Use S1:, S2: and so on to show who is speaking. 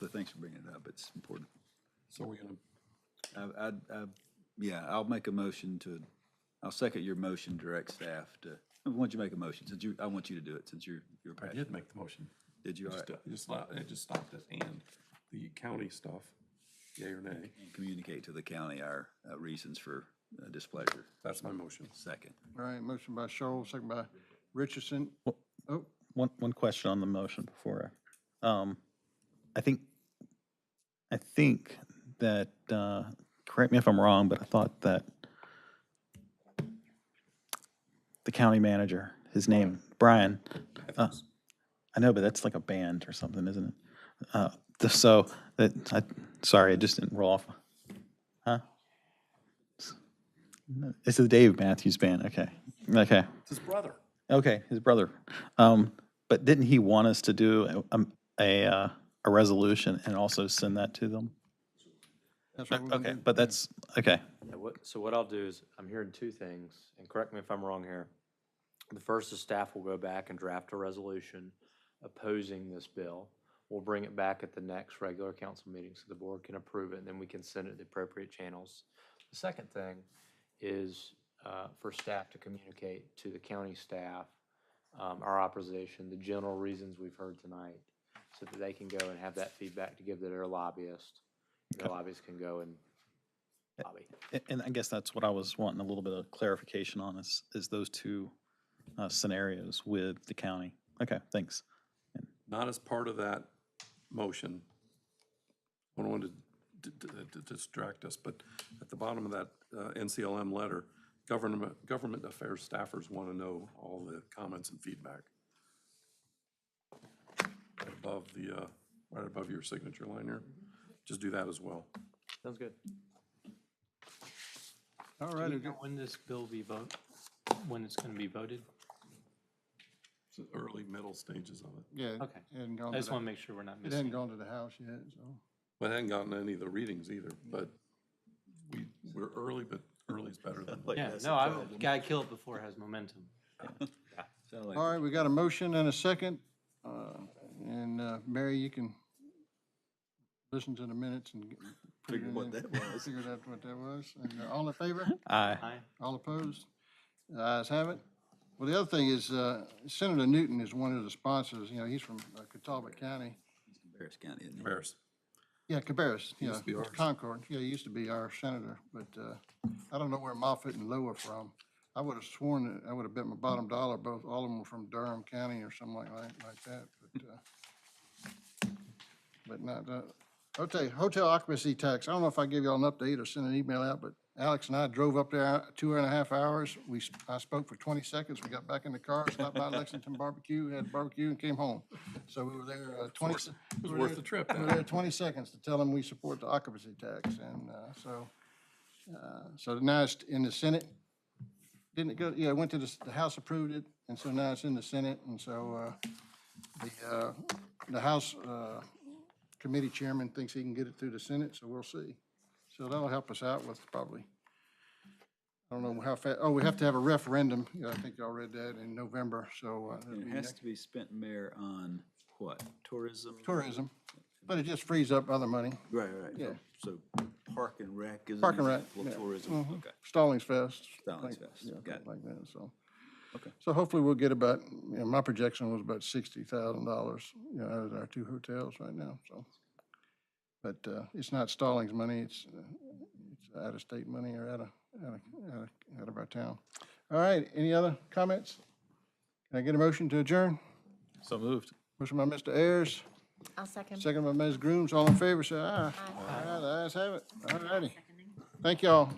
S1: but thanks for bringing it up. It's important.
S2: So we're gonna,
S1: I, I, I, yeah, I'll make a motion to, I'll second your motion, direct staff to, why don't you make a motion? Since you, I want you to do it since you're, you're
S2: I
S1: passionate.
S2: did make the motion.
S1: Did you, all
S2: Just,
S1: right,
S2: uh, Just, stop- it just stopped at and, the county stuff, yea or nay,
S1: and communicate to the county our uh, reasons for uh, displeasure?
S2: that's my motion.
S1: Second.
S3: All right, motion by Shoal, second by Richardson. Oh,
S4: One, one question on the motion before. I- Um, I think, I think that, uh, correct me if I'm wrong, but I thought that the county manager, his name, Brian, uh, I know, but that's like a band or something, isn't it? Uh, th- so that, I, sorry, it just didn't roll off. Huh? It's the Dave Matthews Band. Okay. Okay.
S2: It's his brother.
S4: Okay, his brother. Um, but didn't he want us to do a, um, a, uh, a resolution and also send that to them?
S3: that's what we're gonna
S4: Okay,
S3: do.
S4: but that's, okay.
S5: Yeah, what- So what I'll do is, I'm hearing two things, and correct me if I'm wrong here. The first is staff will go back and draft a resolution opposing this bill. We'll bring it back at the next regular council meeting so the board can approve it, and then we can send it to the appropriate channels. The second thing is uh, for staff to communicate to the county staff um, our opposition, the general reasons we've heard tonight, so that they can go and have that feedback to give to their lobbyist. Their lobbyists can go and lobby.
S4: A- And I guess that's what I was wanting a little bit of clarification on is, is those two, uh, scenarios with the county. Okay, thanks.
S2: Not as part of that motion. I don't want to d- d- d- distract us, but at the bottom of that uh, NCLM letter, government, government affairs staffers want to know all the comments and feedback. Right Above the, uh, right above your signature line here, just do that as well.
S5: Sounds good.
S3: All
S6: Do
S3: right,
S6: you
S3: okay.
S6: know when this bill be vote, when it's going to be voted?
S2: It's the Early, middle stages of it.
S3: yeah.
S6: Okay.
S3: it hadn't gone
S6: I
S3: to
S6: just
S3: the-
S6: want to make sure we're not
S3: It hadn't
S6: missing.
S3: gone to the house yet, so.
S2: Well, I hadn't gotten any of the readings either, but we, we're early, but early's better than late.
S6: Yeah, no, I, gotta kill it before it has momentum.
S3: All right, we got a motion and a second. uh, And uh, Mary, you can listen to the minutes and. get- put it
S1: Figure
S3: in
S1: what
S3: there.
S1: that was.
S3: Figure out what that was. And uh, all in favor?
S4: Aye.
S6: Aye.
S3: All opposed? The ayes have it. Well, the other thing is uh, Senator Newton is one of the sponsors. You know, he's from uh, Catawba County.
S1: Harris County, isn't it?
S2: Embarrassed.
S3: Yeah, Cabarrus, yeah,
S2: used to be ours.
S3: Concord, yeah, he used to be our senator, but uh, I don't know where Moffett and Lowe are from. I would have sworn that, I would have bet my bottom dollar, both, all of them were from Durham County or something like, like like that, but, uh, but not, that. okay, hotel occupancy tax, I don't know if I gave y'all an update or sent an email out, but Alex and I drove up there two and a half hours. We, s- I spoke for twenty seconds, we got back in the car, stopped by Lexington Barbecue, had barbecue and came home. So we were there uh, twenty.
S2: It was worth the trip.
S3: We had 20 seconds to tell them we support the occupancy tax, and uh, so, uh, so now it's in the Senate. Didn't it go, yeah, it went to the, the House approved it, and so now it's in the Senate, and so uh, the, uh, the House uh, Committee Chairman thinks he can get it through the Senate, so we'll see. So that'll help us out with probably, I don't know how fast, oh, we have to have a referendum, yeah, I think y'all read that in November, so. uh, that'll
S1: And
S3: be
S1: it has
S3: next-
S1: to be spent, Mayor, on what? Tourism?
S3: Tourism, but it just frees up other money.
S1: Right, right.
S3: Yeah.
S1: So park and rec is. an
S3: Park and rec,
S1: example of
S3: yeah. Mm-hmm.
S1: Tourism, okay.
S3: Stallings Fest.
S1: Stallings
S3: like-
S1: Fest,
S3: yeah,
S1: got
S3: something Like that, so.
S1: Okay.
S3: So hopefully we'll get about, you know, my projection was about sixty thousand dollars, you know, out of our two hotels right now, so. But, uh, it's not Stallings money, it's, uh, it's out of state money or out of, out of, out of, out of our town. All right, any other comments? Can I get a motion to adjourn?
S4: So moved.
S3: Motion by Mr. Ayers,
S7: I'll second.
S3: second by Ms. Grooms, all in favor, say aye. Aye. the ayes have it, all righty. Thank y'all.